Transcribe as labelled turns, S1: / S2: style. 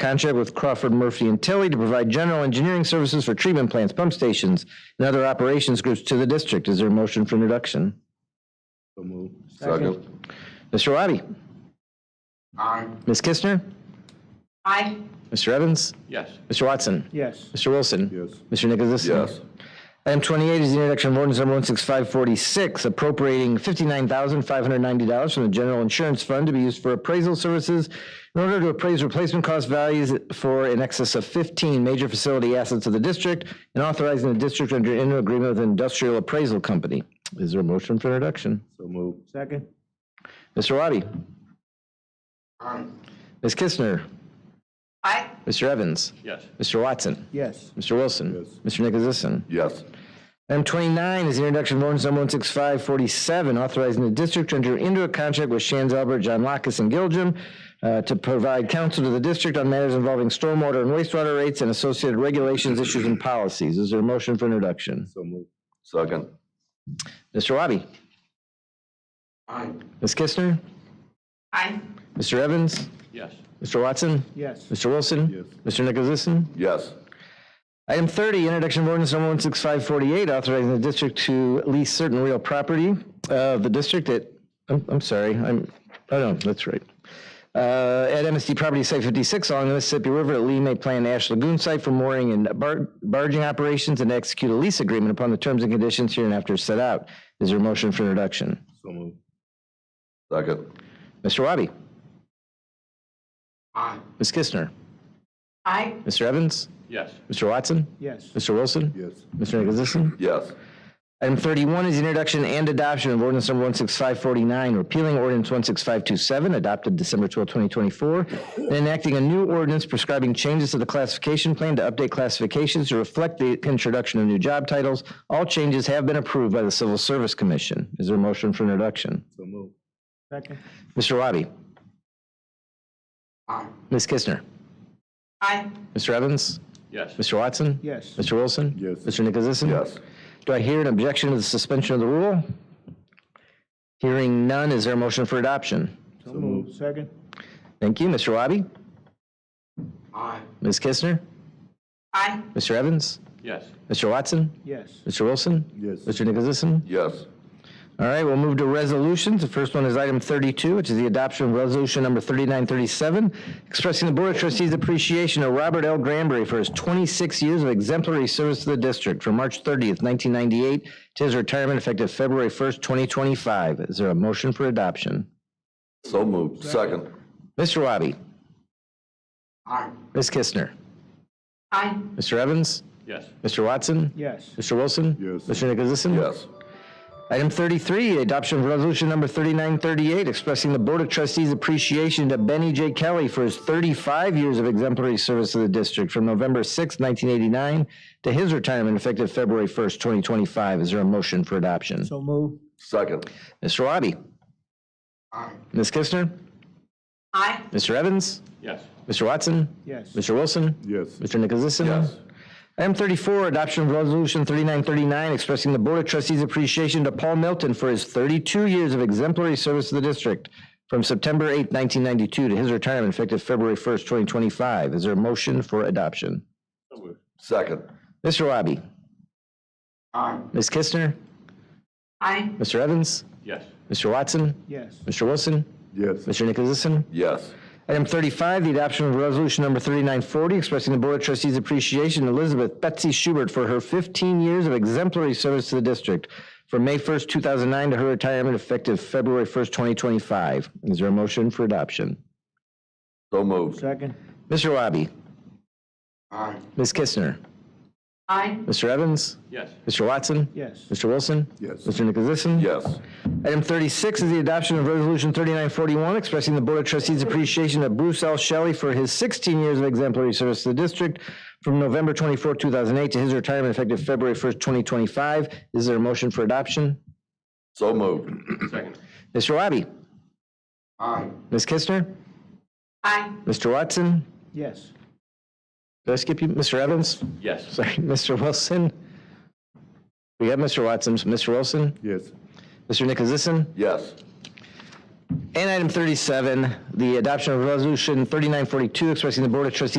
S1: contract with Crawford Murphy and Tilly to provide general engineering services for treatment plants, pump stations, and other operations groups to the district. Is there a motion for introduction?
S2: So moved.
S3: Second.
S1: Mr. Wabi?
S2: Aye.
S1: Ms. Kistner?
S4: Aye.
S1: Mr. Evans?
S2: Yes.
S1: Mr. Watson?
S3: Yes.
S1: Mr. Wilson?
S2: Yes.
S1: Mr. Nicholas?
S3: Yes.
S1: Item 28 is the introduction of ordinance number 16546, appropriating $59,590 from the General Insurance Fund to be used for appraisal services in order to appraise replacement cost values for in excess of 15 major facility assets of the district and authorizing the district to enter into agreement with an industrial appraisal company. Is there a motion for introduction?
S2: So moved.
S3: Second.
S1: Mr. Wabi?
S2: Aye.
S1: Ms. Kistner?
S4: Aye.
S1: Mr. Evans?
S2: Yes.
S1: Mr. Watson?
S3: Yes.
S1: Mr. Wilson? Mr. Nicholasison?
S3: Yes.
S1: Item 29 is the introduction of ordinance number 16547, authorizing the district to enter into a contract with Shands Albert, John Lockus, and Gilliam uh, to provide counsel to the district on matters involving stormwater and wastewater rates and associated regulations, issues, and policies. Is there a motion for introduction?
S2: So moved.
S3: Second.
S1: Mr. Wabi?
S2: Aye.
S1: Ms. Kistner?
S4: Aye.
S1: Mr. Evans?
S2: Yes.
S1: Mr. Watson?
S3: Yes.
S1: Mr. Wilson?
S2: Yes.
S1: Mr. Nicholasison?
S3: Yes.
S1: Item 30, introduction of ordinance number 16548, authorizing the district to lease certain real property of the district at, I'm, I'm sorry, I'm, oh no, that's right. Uh, At MSD Property Site 56 along the Mississippi River at Lee May Plan Ash Lagoon Site for mooring and bar- barging operations and execute a lease agreement upon the terms and conditions hereinafter set out. Is there a motion for introduction?
S2: So moved.
S3: Second.
S1: Mr. Wabi?
S2: Aye.
S1: Ms. Kistner?
S4: Aye.
S1: Mr. Evans?
S2: Yes.
S1: Mr. Watson?
S3: Yes.
S1: Mr. Wilson?
S2: Yes.
S1: Mr. Nicholasison?
S3: Yes.
S1: Item 31 is the introduction and adoption of ordinance number 16549, repealing ordinance 16527, adopted December 12, 2024, and enacting a new ordinance prescribing changes to the classification plan to update classifications to reflect the introduction of new job titles. All changes have been approved by the Civil Service Commission. Is there a motion for introduction?
S2: So moved.
S3: Second.
S1: Mr. Wabi?
S2: Aye.
S1: Ms. Kistner?
S4: Aye.
S1: Mr. Evans?
S2: Yes.
S1: Mr. Watson?
S3: Yes.
S1: Mr. Wilson?
S2: Yes.
S1: Mr. Nicholasison?
S3: Yes.
S1: Do I hear an objection to the suspension of the rule? Hearing none, is there a motion for adoption?
S3: So moved. Second.
S1: Thank you. Mr. Wabi?
S2: Aye.
S1: Ms. Kistner?
S4: Aye.
S1: Mr. Evans?
S2: Yes.
S1: Mr. Watson?
S3: Yes.
S1: Mr. Wilson?
S2: Yes.
S1: Mr. Nicholasison?
S3: Yes.
S1: All right, we'll move to resolutions. The first one is item 32, which is the adoption of resolution number 3937, expressing the Board of Trustees' appreciation of Robert L. Granberry for his 26 years of exemplary service to the district from March 30th, 1998 to his retirement effective February 1st, 2025. Is there a motion for adoption?
S3: So moved. Second.
S1: Mr. Wabi?
S2: Aye.
S1: Ms. Kistner?
S4: Aye.
S1: Mr. Evans?
S2: Yes.
S1: Mr. Watson?
S3: Yes.
S1: Mr. Wilson?
S2: Yes.
S1: Mr. Nicholasison?
S3: Yes.
S1: Item 33, adoption of resolution number 3938, expressing the Board of Trustees' appreciation to Benny J. Kelly for his 35 years of exemplary service to the district from November 6, 1989 to his retirement effective February 1st, 2025. Is there a motion for adoption?
S3: So moved. Second.
S1: Mr. Wabi?
S2: Aye.
S1: Ms. Kistner?
S4: Aye.
S1: Mr. Evans?
S2: Yes.
S1: Mr. Watson?
S3: Yes.
S1: Mr. Wilson?
S2: Yes.
S1: Mr. Nicholasison?
S3: Yes.
S1: Item 34, adoption of resolution 3939, expressing the Board of Trustees' appreciation to Paul Milton for his 32 years of exemplary service to the district from September 8, 1992 to his retirement effective February 1st, 2025. Is there a motion for adoption?
S2: So moved.
S3: Second.
S1: Mr. Wabi?
S2: Aye.
S1: Ms. Kistner?
S4: Aye.
S1: Mr. Evans?
S2: Yes.
S1: Mr. Watson?
S3: Yes.
S1: Mr. Wilson?
S2: Yes.
S1: Mr. Nicholasison?
S3: Yes.
S1: Item 35, the adoption of resolution number 3940, expressing the Board of Trustees' appreciation to Elizabeth Betsy Schubert for her 15 years of exemplary service to the district from May 1st, 2009 to her retirement effective February 1st, 2025. Is there a motion for adoption?
S3: So moved.
S2: Second.
S1: Mr. Wabi?
S2: Aye.
S1: Ms. Kistner?
S4: Aye.
S1: Mr. Evans?
S2: Yes.
S1: Mr. Watson?
S3: Yes.
S1: Mr. Wilson?
S2: Yes.
S1: Mr. Nicholasison?
S3: Yes.
S1: Item 36 is the adoption of Resolution 3941, expressing the Board of Trustees' appreciation of Bruce L. Shelley for his 16 years of exemplary service to the district from November 24, 2008 to his retirement effective February 1st, 2025. Is there a motion for adoption?
S3: So moved.
S2: Second.
S1: Mr. Wabi?
S2: Aye.
S1: Ms. Kistner?
S4: Aye.
S1: Mr. Watson?
S3: Yes.
S1: Did I skip you? Mr. Evans?
S2: Yes.
S1: Sorry, Mr. Wilson? We have Mr. Watson, Mr. Wilson,
S2: Yes.
S1: Mr. Nicholasison?
S3: Yes.
S1: And item 37, the adoption of resolution 3942 expressing the Board of Trustees